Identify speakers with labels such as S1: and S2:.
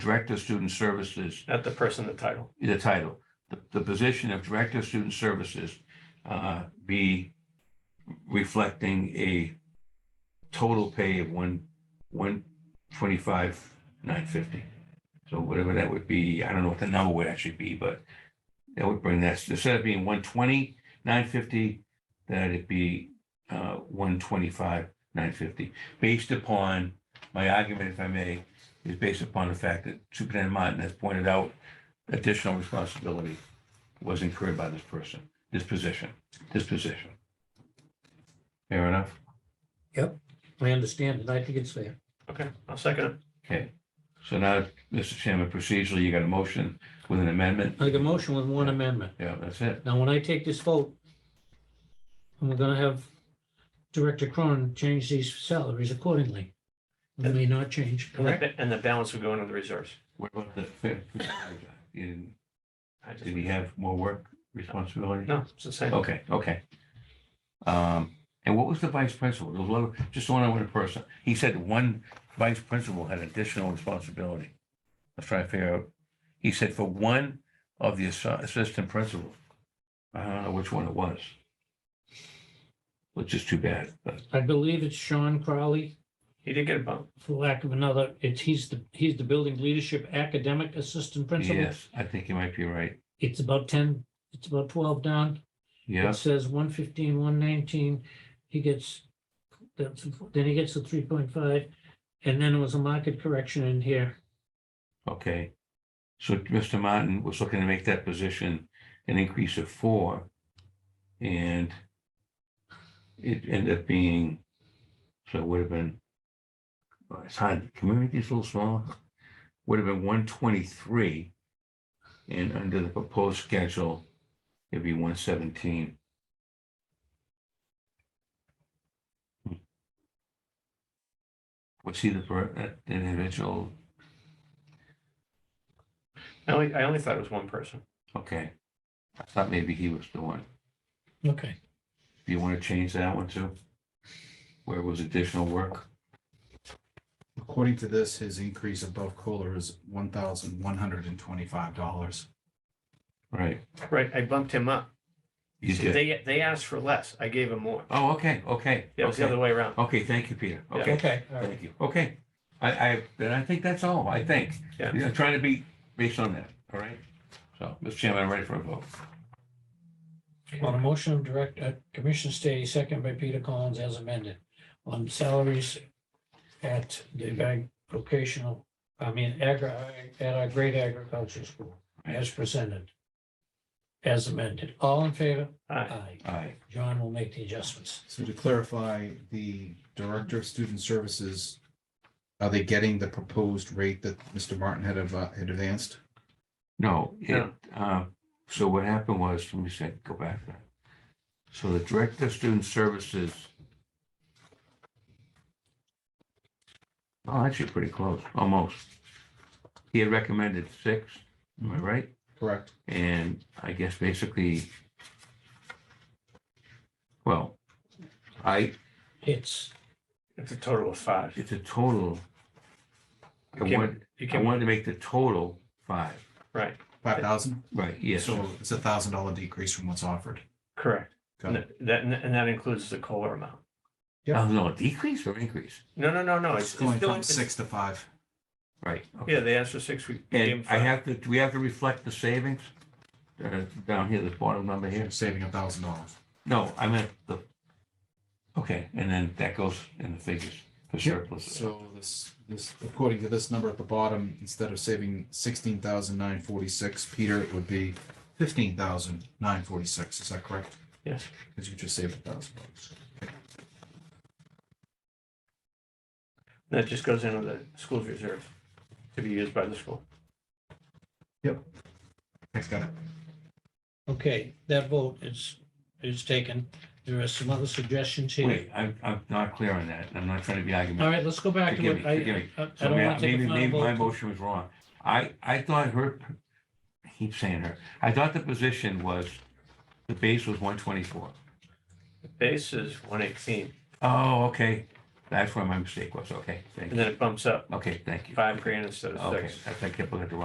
S1: Director of Student Services,
S2: not the person, the title.
S1: the title, the, the position of Director of Student Services uh, be reflecting a total pay of one, one twenty-five, nine fifty. So whatever that would be, I don't know what the number would actually be, but that would bring that, instead of being one twenty, nine fifty, that it be uh, one twenty-five, nine fifty. Based upon, my argument, if I may, is based upon the fact that Superintendent Martin has pointed out additional responsibility was incurred by this person, this position, this position. Fair enough?
S3: I understand, and I think it's fair.
S2: Okay, I'll second it.
S1: Okay. So now, Mr. Chairman, procedurally, you got a motion with an amendment?
S3: I got a motion with one amendment.
S1: Yeah, that's it.
S3: Now, when I take this vote, and we're gonna have Director Cronin change these salaries accordingly. They may not change,
S2: And the
S3: correct?
S2: ba- And the balance would go into the reserves.
S1: What about the, did
S2: I just-
S1: he have more work responsibility?
S2: No, it's the same.
S1: Okay, okay. Um, and what was the vice principal? There was a little, just one other person. He said one vice principal had additional responsibility. Let's try to figure out. He said for one of the assi- assistant principal. I don't know which one it was. Which is too bad, but
S3: I believe it's Sean Crowley,
S2: He did get a bump.
S3: for lack of another, it's, he's the, he's the Building Leadership Academic Assistant Principal.
S1: yes, I think you might be right.
S3: It's about ten, it's about twelve down. It
S1: Yes,
S3: says one fifteen, one nineteen, he gets, that's- then he gets the three point five, and then it was a market correction in here.
S1: okay. So Mr. Martin was looking to make that position an increase of four. And it ended up being, so it would have been, well, it's hard, community's a little small, would have been one twenty-three. And under the proposed schedule, it'd be one seventeen. Was he Hmm. the, per- that individual?
S2: I only, I only thought it was one person.
S1: Okay. I thought maybe he was the one.
S3: Okay.
S1: Do you want to change that one too? Where it was additional work?
S4: According to this, his increase above COLA is one thousand one hundred and twenty-five dollars.
S1: Right.
S2: Right, I bumped him up.
S1: You
S2: See,
S1: did.
S2: They, they asked for less. I gave him more.
S1: Oh, okay, okay.
S2: Yeah, it was the
S1: okay.
S2: other way around.
S1: Okay, thank you, Peter.
S2: Yeah.
S1: Okay, thank you. Okay. I, I, then I think that's all, I think.
S2: Yeah.
S1: I'm trying to be based on that, all right? So, Mr. Chairman, I'm ready for a vote.
S3: On a motion of direct, uh, Commissioner Stady, second by Peter Collins as amended, on salaries at the ag- vocational, I mean, agri, at our great agriculture school, as presented. As amended, all in favor?
S2: Aye.
S3: Aye.
S1: Aye.
S3: John will make the adjustments.
S4: So to clarify, the Director of Student Services, are they getting the proposed rate that Mr. Martin had adv- had advanced?
S1: No, it,
S2: No.
S1: uh, so what happened was, let me say, go back there. So the Director of Student Services. Oh, actually pretty close, almost. He had recommended six, am I
S4: Mm-hmm.
S1: right?
S4: Correct.
S1: And I guess basically. Well, I,
S3: It's,
S2: It's a total of five.
S1: it's a total, I
S2: You can't-
S1: wanted,
S2: you
S1: I
S2: can't,
S1: wanted to make the total five.
S2: right,
S4: Five thousand?
S1: Right, yes,
S4: So it's a thousand dollar decrease from what's offered.
S2: correct.
S4: Got
S2: And
S4: it.
S2: that, and that includes the COLA amount.
S1: Oh, no, decrease or increase,
S2: No, no, no, no. It's
S4: It's
S2: it's
S4: going
S2: still-
S4: from
S2: it's-
S4: six to five.
S1: right? okay.
S2: Yeah, they asked for six. We we gave him
S1: And I
S2: five.
S1: have to, do we have to reflect the savings? Uh, Down here, this bottom number here?
S4: You're saving a thousand dollars.
S1: No, I meant the, okay, and then that goes in the figures for surplus.
S4: So this, this, according to this number at the bottom, instead of saving sixteen thousand nine forty-six, Peter, it would be fifteen thousand nine forty-six. Is that correct?
S2: Yes.
S4: Because you just saved a thousand bucks.
S2: That just goes into the school's reserve to be used by the school.
S4: Thanks, guy.
S3: okay, that vote is, is taken. There are some other suggestions here.
S1: Wait, I'm, I'm not clear on that. I'm not trying to be
S3: All
S1: argumentative.
S3: right, let's go back to
S1: Forgive
S3: it.
S1: me, forgive
S3: I,
S1: me.
S3: I I
S1: So
S3: don't
S1: may-
S3: want to take
S1: maybe,
S3: a
S1: maybe my
S3: final vote.
S1: motion was wrong. I, I thought her, I keep saying her, I thought the position was, the base was one twenty-four.
S2: The base is one eighteen.
S1: Oh, okay. That's where my mistake was. Okay, thank you.
S2: And then it bumps up
S1: Okay, thank you.
S2: five grand instead of
S1: Okay,
S2: six.
S1: I think I looked at the wrong